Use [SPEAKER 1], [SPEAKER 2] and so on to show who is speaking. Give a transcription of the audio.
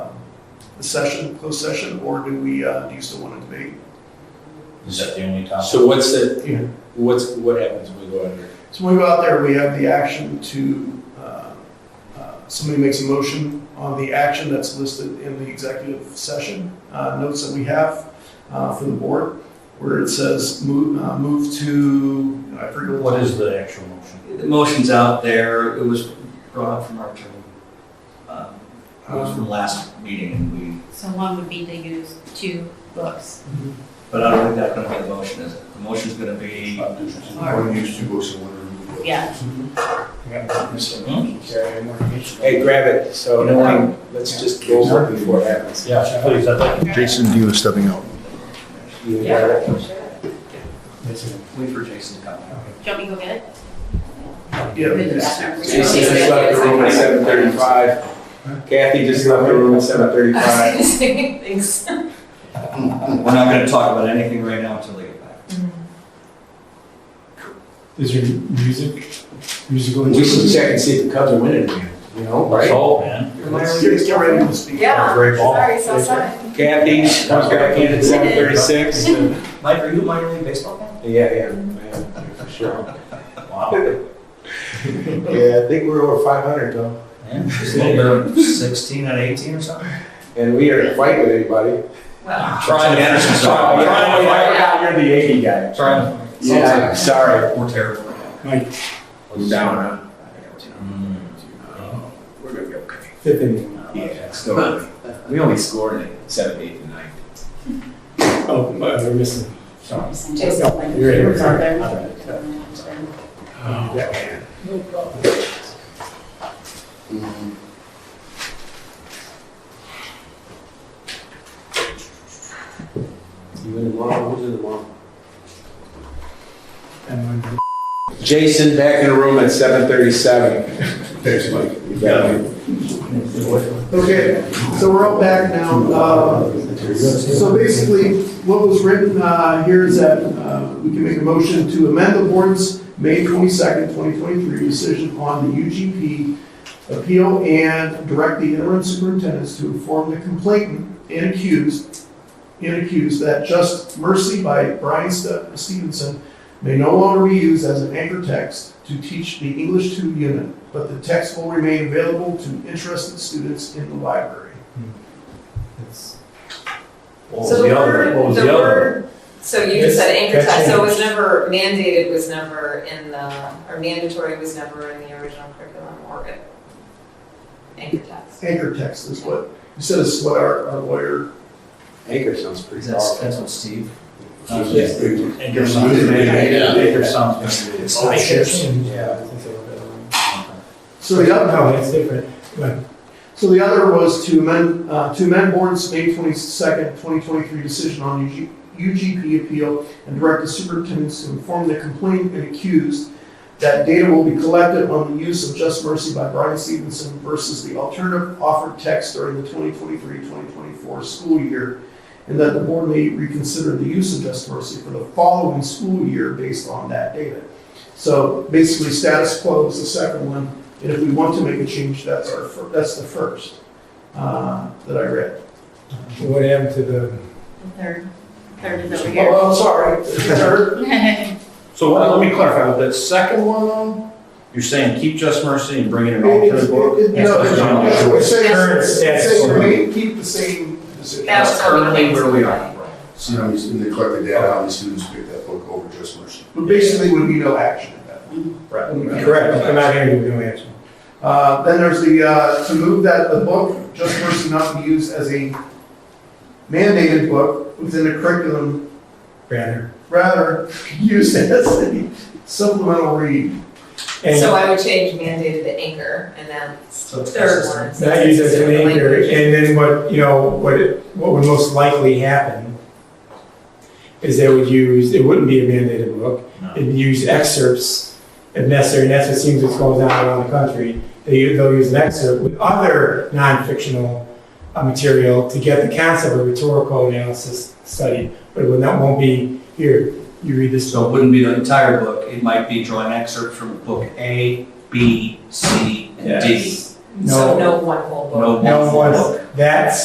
[SPEAKER 1] the session, closed session, or do we, uh, do you still want to debate?
[SPEAKER 2] Is that the only topic?
[SPEAKER 3] So what's the,
[SPEAKER 1] Yeah.
[SPEAKER 3] what's, what happens when we go under?
[SPEAKER 1] So when we go out there, we have the action to, uh, uh, somebody makes a motion on the action that's listed in the executive session uh, notes that we have uh, for the board, where it says move, uh, move to, I forget what.
[SPEAKER 2] What is the actual motion?
[SPEAKER 4] The motion's out there, it was brought up from our attorney. Um, It was from last meeting and we,
[SPEAKER 5] So one would be to use two books.
[SPEAKER 4] but I don't think that's gonna be the motion, is it? The motion's gonna be,
[SPEAKER 5] Or-
[SPEAKER 6] use two books and one remove book.
[SPEAKER 5] Yeah,
[SPEAKER 4] Hmm?
[SPEAKER 3] Hey, grab it, so um,
[SPEAKER 4] You know what?
[SPEAKER 3] let's just go over it before it happens.
[SPEAKER 2] Yeah, please, I'd like.
[SPEAKER 6] Jason, you is stepping out.
[SPEAKER 3] You got
[SPEAKER 5] yeah,
[SPEAKER 3] it?
[SPEAKER 5] for sure. Do
[SPEAKER 4] wait for Jason to come.
[SPEAKER 5] you want me to go get it?
[SPEAKER 1] Yeah,
[SPEAKER 5] Or the
[SPEAKER 1] it's-
[SPEAKER 5] bathroom?
[SPEAKER 3] Jason just left the room at seven thirty-five. Kathy just left the room at seven thirty-five.
[SPEAKER 5] Thanks.
[SPEAKER 4] We're not gonna talk about anything right now until they get back.
[SPEAKER 7] Is there music, musical?
[SPEAKER 3] We should
[SPEAKER 7] instruments?
[SPEAKER 3] check and see if the Cubs are winning again, you know, right?
[SPEAKER 2] Oh, man.
[SPEAKER 1] Get get ready to speak.
[SPEAKER 5] Yeah.
[SPEAKER 2] Great ball.
[SPEAKER 5] Sorry, so sorry.
[SPEAKER 3] Kathy comes back in at seven thirty-six. Yeah,
[SPEAKER 4] Mike, are you a minor league baseball fan?
[SPEAKER 3] yeah, yeah, for sure.
[SPEAKER 2] Wow.
[SPEAKER 3] Yeah, I think we're over five hundred though,
[SPEAKER 4] Yeah, just a little bit of sixteen out of eighteen or something.
[SPEAKER 3] and we aren't fighting with anybody.
[SPEAKER 5] Well,
[SPEAKER 4] Trying to manage this.
[SPEAKER 3] Sorry, I forgot you're the Yankee guy.
[SPEAKER 4] Trying.
[SPEAKER 3] Yeah, sorry.
[SPEAKER 4] We're terrible.
[SPEAKER 7] Mike,
[SPEAKER 3] We're down on
[SPEAKER 4] Hmm. We're gonna be okay.
[SPEAKER 3] fifth inning. Yeah, still, we only scored in seventh, eighth, and ninth.
[SPEAKER 7] oh, my, we're missing.
[SPEAKER 5] Jason, like,
[SPEAKER 3] You're in.
[SPEAKER 5] it's out there.
[SPEAKER 3] All right. You in the mall, who's in the mall?
[SPEAKER 7] And when-
[SPEAKER 3] Jason back in the room at seven thirty-seven.
[SPEAKER 6] Thanks, Mike.
[SPEAKER 3] You got it.
[SPEAKER 1] Okay, so we're all back now. Uh, So basically, what was written uh, here is that uh, we can make a motion to amend the board's May 22nd, 2023 decision on the UGP appeal and direct the interim superintendents to inform the complainant and accused, and accused that Just Mercy by Brian Ste- Stevenson may no longer be used as an anchor text to teach the English 2 unit but the text will remain available to interested students in the library.
[SPEAKER 2] What was
[SPEAKER 8] So the
[SPEAKER 2] the other, what
[SPEAKER 8] word,
[SPEAKER 2] was
[SPEAKER 8] the
[SPEAKER 2] the other?
[SPEAKER 8] word, so you just said anchor text, so it was never mandated, was never in the, or mandatory was never in the original curriculum or it. Anchor text.
[SPEAKER 1] Anchor text is what, you said is what our, our lawyer.
[SPEAKER 3] Anchor sounds pretty
[SPEAKER 4] That's,
[SPEAKER 3] powerful.
[SPEAKER 4] that's what Steve.
[SPEAKER 3] Yeah.
[SPEAKER 2] And your son's gonna be,
[SPEAKER 3] Yeah.
[SPEAKER 2] your son's gonna be.
[SPEAKER 4] Oh,
[SPEAKER 7] Yeah, I think they were better ones.
[SPEAKER 1] So the other,
[SPEAKER 7] No, it's different, but
[SPEAKER 1] so the other was to amend, uh, to amend board's May twenty-second, twenty twenty-three decision on UG, UGP appeal and direct the superintendents to inform the complainant and accused that data will be collected on the use of Just Mercy by Brian Stevenson versus the alternative offered text during the 2023-2024 school year, and that the board may reconsider the use of Just Mercy for the following school year based on that data. So basically, status quo is the second one, and if we want to make a change, that's our, fir- that's the first uh, that I read.
[SPEAKER 7] what happened to the,
[SPEAKER 5] The Third, third is over here.
[SPEAKER 1] Oh, I'm sorry, third,
[SPEAKER 2] So what- let me clarify, with that second one though, you're saying keep Just Mercy and bring in an
[SPEAKER 1] It- it-
[SPEAKER 2] alternate book?
[SPEAKER 1] it- it- no, it's- it's saying-
[SPEAKER 2] Current
[SPEAKER 1] it's
[SPEAKER 2] status
[SPEAKER 1] saying
[SPEAKER 2] quo.
[SPEAKER 1] remain- Keep the same position.
[SPEAKER 8] That was
[SPEAKER 4] Currently where we are.
[SPEAKER 6] So now he's going to collect the data, how the students pick that book over just mercy.
[SPEAKER 1] But basically, would be no action at that point.
[SPEAKER 2] Right.
[SPEAKER 3] Correct.
[SPEAKER 7] I'm not hearing you, no answer.
[SPEAKER 1] Uh, Then there's the, uh, to move that the book, Just Mercy not be used as a mandated book within the curriculum,
[SPEAKER 7] Rather.
[SPEAKER 1] rather used as a supplemental read.
[SPEAKER 7] And
[SPEAKER 8] So I would change mandated to anchor and then third one. so
[SPEAKER 7] not
[SPEAKER 8] it's
[SPEAKER 7] use as an
[SPEAKER 8] different
[SPEAKER 7] anchor,
[SPEAKER 8] language.
[SPEAKER 7] and then what, you know, what, it- what would most likely happen is they would use, it wouldn't be a mandated book,
[SPEAKER 2] No.
[SPEAKER 7] it'd use excerpts if necessary, and that's what seems what's going on around the country. They, they'll use an excerpt with other non-fictional uh, material to get the concept of rhetorical analysis studied, but it will not, won't be here, you read this
[SPEAKER 4] So it wouldn't be the entire book, it might be drawing excerpts from book A, B, C, and D.
[SPEAKER 7] No.
[SPEAKER 8] So no one whole book.
[SPEAKER 4] No
[SPEAKER 7] No
[SPEAKER 4] one
[SPEAKER 7] one,
[SPEAKER 4] book.
[SPEAKER 7] that's